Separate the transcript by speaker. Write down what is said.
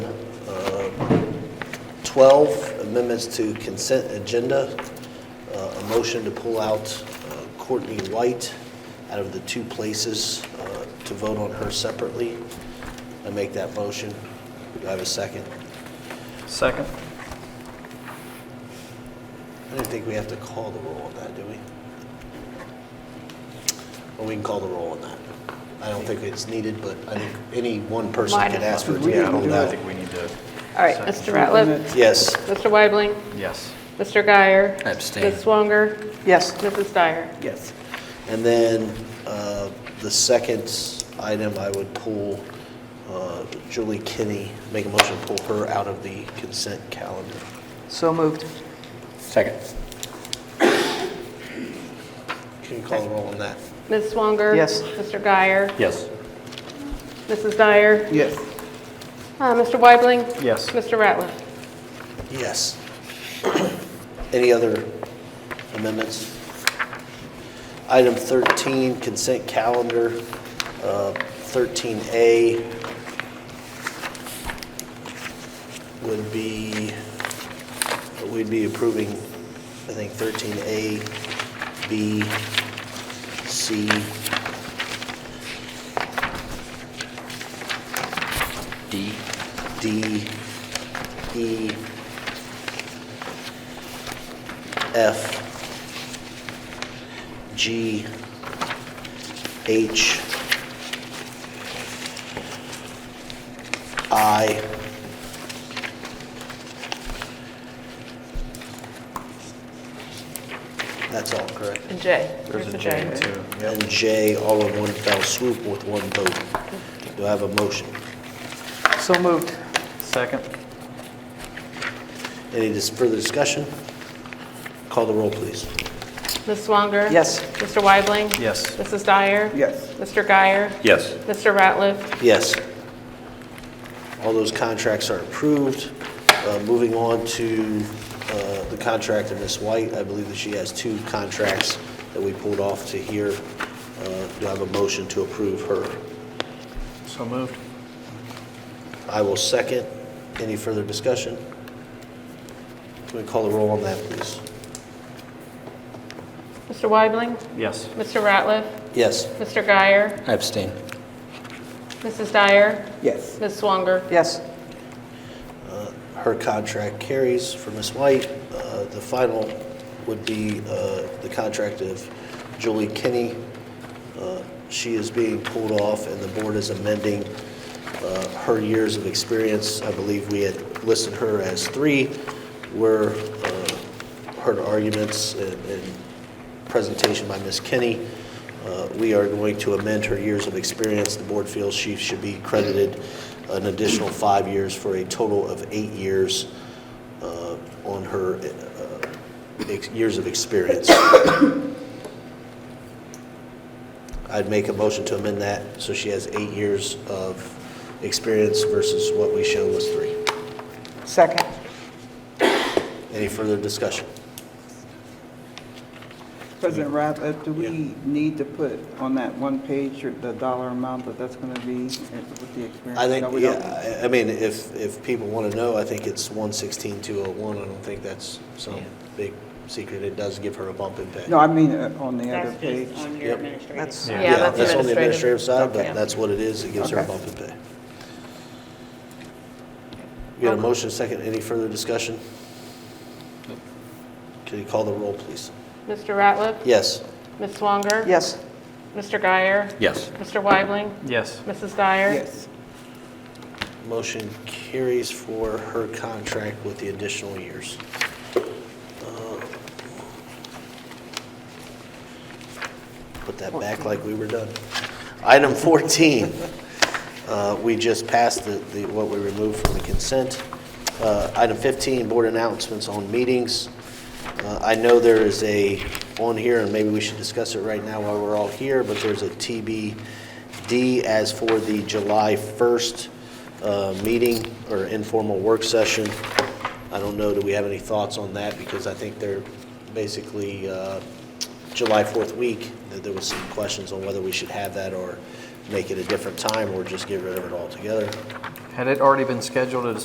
Speaker 1: 12, amendments to consent agenda, Uh, a motion to pull out uh, Courtney White out of the two places uh, to vote on her separately. I make that motion. Do I have a second?
Speaker 2: Second.
Speaker 1: I don't think we have to call the roll on that, do we? Well, we can call the roll on that. I don't think it's needed, but I think any one person
Speaker 3: Mine
Speaker 1: could
Speaker 3: is-
Speaker 1: ask for it to be
Speaker 2: Yeah, I
Speaker 1: pulled
Speaker 2: don't I
Speaker 1: out.
Speaker 2: think we need to.
Speaker 3: All right,
Speaker 2: Second.
Speaker 3: Mr. Ratliff,
Speaker 1: Yes.
Speaker 3: Mr. Weibling,
Speaker 2: Yes.
Speaker 3: Mr. Guyer.
Speaker 4: Abstain.
Speaker 3: Ms. Swanger,
Speaker 5: Yes.
Speaker 3: Mrs. Dyer.
Speaker 5: Yes.
Speaker 1: And then uh, the second item I would pull, uh, Julie Kinney, make a motion to pull her out of the consent calendar.
Speaker 5: So moved.
Speaker 4: Second.
Speaker 1: Can you call the roll on that?
Speaker 3: Ms. Swanger.
Speaker 5: Yes.
Speaker 3: Mr. Guyer.
Speaker 4: Yes.
Speaker 3: Mrs. Dyer.
Speaker 5: Yes.
Speaker 3: Uh, Mr. Weibling.
Speaker 2: Yes.
Speaker 3: Mr. Ratliff.
Speaker 1: Yes. Any other amendments? Item 13, consent calendar, uh, 13A would be, we'd be approving, I think, 13A, B, C,
Speaker 4: D.
Speaker 1: D, E, F, G, H, I, that's all correct.
Speaker 3: And J.
Speaker 2: There's a
Speaker 3: the
Speaker 2: J too.
Speaker 1: And J, all in one fell swoop with one vote. Do I have a motion?
Speaker 5: So moved.
Speaker 2: Second.
Speaker 1: Any dis- further discussion? Call the roll, please.
Speaker 3: Ms. Swanger.
Speaker 5: Yes.
Speaker 3: Mr. Weibling.
Speaker 2: Yes.
Speaker 3: Mrs. Dyer.
Speaker 5: Yes.
Speaker 3: Mr. Guyer.
Speaker 4: Yes.
Speaker 3: Mr. Ratliff.
Speaker 1: Yes. All those contracts are approved. Uh, Moving on to uh, the contract of Ms. White, I believe that she has two contracts that we pulled off to here. Uh, Do I have a motion to approve her?
Speaker 2: So moved.
Speaker 1: I will second. Any further discussion? Can we call the roll on that, please?
Speaker 3: Mr. Weibling.
Speaker 2: Yes.
Speaker 3: Mr. Ratliff.
Speaker 1: Yes.
Speaker 3: Mr. Guyer.
Speaker 4: I abstain.
Speaker 3: Mrs. Dyer.
Speaker 5: Yes.
Speaker 3: Ms. Swanger.
Speaker 5: Yes.
Speaker 1: her contract carries for Ms. White. Uh, The final would be uh, the contract of Julie Kinney. Uh, She is being pulled off, and the board is amending uh, her years of experience. I believe we had listed her as three, where uh, heard arguments and and presentation by Ms. Kinney. Uh, We are going to amend her years of experience. The board feels she should be credited an additional five years for a total of eight years uh, on her uh, ex- years of experience. I'd make a motion to amend that, so she has eight years of experience versus what we show was three.
Speaker 5: Second.
Speaker 1: Any further discussion?
Speaker 6: President Ratliff, do we need to put on that one page the dollar amount that that's going to be uh, with the experience?
Speaker 1: I
Speaker 6: No,
Speaker 1: think,
Speaker 6: we
Speaker 1: yeah,
Speaker 6: don't.
Speaker 1: I- I mean, if, if people want to know, I think it's 116201. I don't think that's some big secret. It does give her a bump in pay.
Speaker 6: No, I mean uh, on the other
Speaker 7: That's
Speaker 6: page.
Speaker 7: just on your
Speaker 1: Yep.
Speaker 7: administrative.
Speaker 5: That's,
Speaker 2: Yeah.
Speaker 3: Yeah, that's
Speaker 1: That's on the
Speaker 3: administrative.
Speaker 1: administrative side,
Speaker 3: Yeah.
Speaker 1: but that's what it is. It gives her a
Speaker 6: Okay.
Speaker 1: bump in pay. You got a motion, second, any further discussion? Can you call the roll, please?
Speaker 3: Mr. Ratliff.
Speaker 1: Yes.
Speaker 3: Ms. Swanger.
Speaker 5: yes.
Speaker 3: Mr. Guyer.
Speaker 4: Yes.
Speaker 3: Mr. Weibling.
Speaker 2: Yes.
Speaker 3: Mrs. Dyer.
Speaker 6: Yes.
Speaker 1: Motion carries for her contract with the additional years. Uh, Put that back like we were done. Item 14, uh, we just passed the, the- what we removed from the consent. Uh, Item 15, board announcements on meetings. Uh, I know there is a, on here, and maybe we should discuss it right now while we're all here, but there's a TBD as for the July 1st uh, meeting or informal work session. I don't know, do we have any thoughts on that? Because I think they're basically uh, July 4th week, that there was some questions on whether we should have that or make it a different time or just get rid of it altogether.
Speaker 2: Had it already been scheduled at a